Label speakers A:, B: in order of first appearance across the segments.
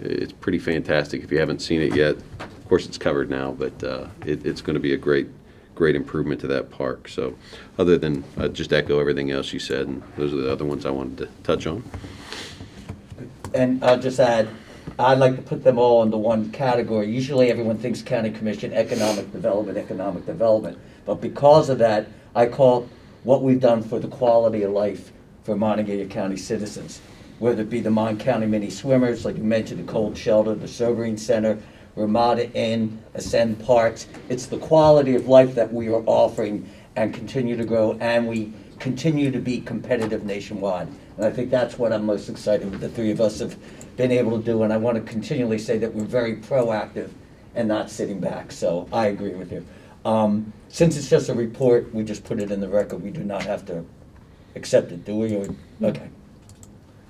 A: It's pretty fantastic if you haven't seen it yet. Of course, it's covered now, but uh, it, it's going to be a great, great improvement to that park. So, other than uh, just echo everything else you said, and those are the other ones I wanted to touch on.
B: And I'll just add, I'd like to put them all into one category. Usually everyone thinks county commission, economic development, economic development. But because of that, I call it what we've done for the quality of life for Montague County citizens. Whether it be the Mon County Mini Swimmers, like you mentioned, the Cold Shelter, the Sobering Center, Ramada Inn, Ascend Parks. It's the quality of life that we are offering and continue to grow, and we continue to be competitive nationwide. And I think that's what I'm most excited with the three of us have been able to do, and I want to continually say that we're very proactive and not sitting back, so I agree with you. Um, Since it's just a report, we just put it in the record, we do not have to accept it, do we? Or- Okay.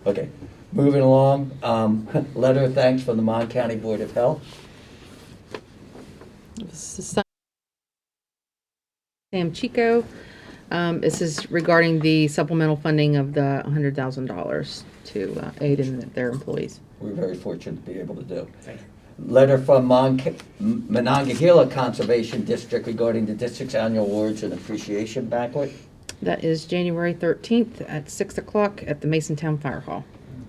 B: Okay, moving along, um, letter of thanks from the Mon County Board of Health.
C: This is Sam- Sam Chico. Um, This is regarding the supplemental funding of the $100,000 to uh, aid in their employees.
B: We're very fortunate to be able to do. Letter from Mon- M- Monongahela Conservation District regarding the district's annual awards and appreciation banquet.
C: That is January 13th at 6 o'clock at the Mason Town Fire Hall.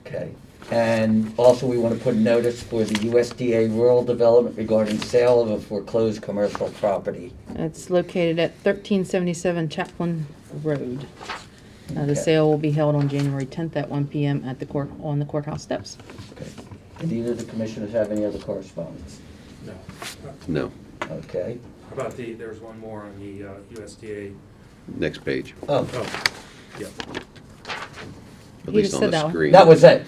B: Okay. And also, we want to put notice for the USDA rural development regarding sale of a foreclosed commercial property.
C: It's located at 1377 Chaplin Road. Uh,
B: Okay.
C: The sale will be held on January 10th at 1 PM at the court, on the courthouse steps.
B: Okay. Did either of the commissioners have any other correspondence?
D: No. How
A: No,
B: Okay.
D: about the, there's one more on the uh, USDA.
A: next page.
B: Oh,
D: Oh, yeah.
A: At
C: You
A: least
C: just
A: on
C: said
A: the
C: that one.
A: screen.
B: that was it.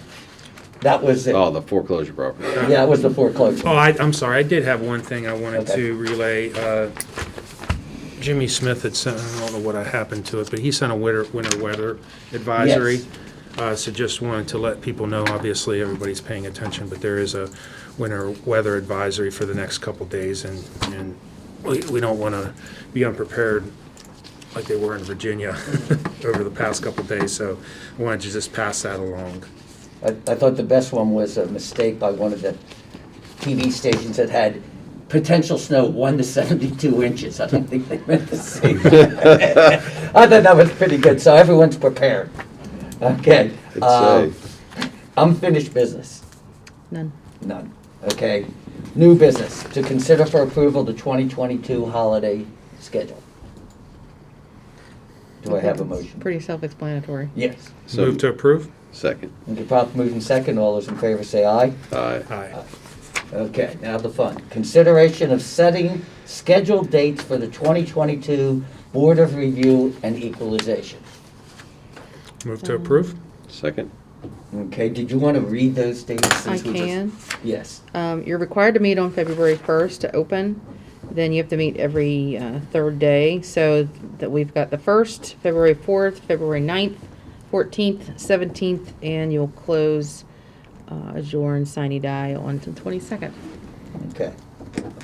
B: That was it.
A: Oh, the foreclosure property.
B: Yeah, it was the foreclosure.
D: Oh, I, I'm sorry, I did have one thing I wanted
B: Okay.
D: to relay. Uh, Jimmy Smith had sent, I don't know what happened to it, but he sent a winter, winter weather advisory.
B: Yes.
D: Uh, So just wanted to let people know, obviously, everybody's paying attention, but there is a winter weather advisory for the next couple days, and, and we, we don't want to be unprepared like they were in Virginia over the past couple days, so I wanted to just pass that along.
B: I, I thought the best one was a mistake by one of the TV stations that had potential snow one to seventy-two inches. I don't think they meant to say that. I thought that was pretty good, so everyone's prepared. Okay.
A: It's,
B: um,
A: uh,
B: Unfinished business.
C: None.
B: None. Okay. New business, to consider for approval the 2022 holiday schedule. Do I have a motion?
C: Pretty self-explanatory.
B: Yes.
A: so-
D: Move to approve?
A: Second.
B: Okay, prop moved in second. All those in favor say aye.
A: Aye.
D: Aye.
B: Okay, now the fun. Consideration of setting scheduled dates for the 2022 Board of Review and Equalization.
D: Move to approve?
A: Second.
B: Okay, did you want to read those dates?
C: I
B: since we just-
C: can.
B: Yes.
C: Um, you're required to meet on February first to open. Then you have to meet every, uh, third day, so that we've got the first, February fourth, February 9th, fourteenth, seventeenth, and you'll close, uh, adjourn sine die on the twenty-second.
B: Okay.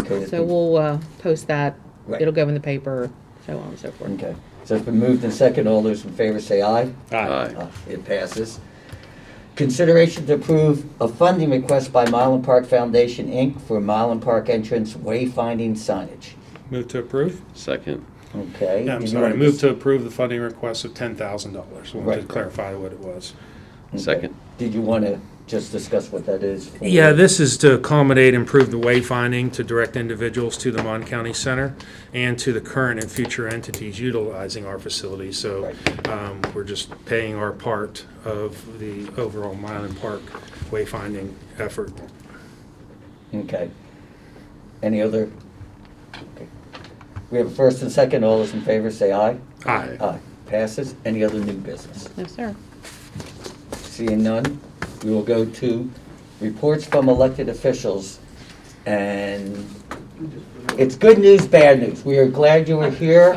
B: Okay, it's
C: So
B: been-
C: we'll, uh, post that,
B: Right.
C: it'll go in the paper, so on and so forth.
B: Okay, so it's been moved in second. All those in favor say aye.
A: Aye.
B: Uh, It passes. Consideration to approve a funding request by Mylan Park Foundation, Inc. for Mylan Park entrance wayfinding signage.
D: Move to approve?
A: Second.
B: Okay.
D: Yeah, I'm
B: did you
D: sorry,
B: wanna-
D: move to approve the funding request of ten thousand dollars. I wanted to
B: Right.
D: clarify what it was.
B: Okay.
A: Second.
B: Did you want to just discuss what that is? for-
D: Yeah, this is to accommodate improved wayfinding to direct individuals to the Mon County Center and to the current and future entities utilizing our facility. So um, we're just paying our part of the overall Mylan Park wayfinding effort.
B: Okay. Any other? okay. We have a first and second. All those in favor say aye.
D: Aye.
B: Aye. Passes. Any other new business?
C: No, sir.
B: Seeing none, we will go to reports from elected officials. And it's good news, bad news. We are glad you were here.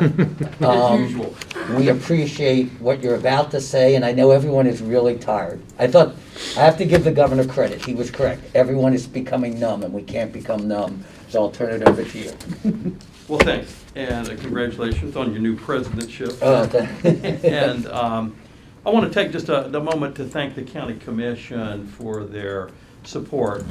B: As usual. We appreciate what you're about to say, and I know everyone is really tired. I thought, I have to give the governor credit. He was correct. Everyone is becoming numb, and we can't become numb. So I'll turn it over to you.
E: Well, thanks, and uh, congratulations on your new presidentship.
B: Uh, the-
E: And um, I want to take just a the moment to thank the county commission for their support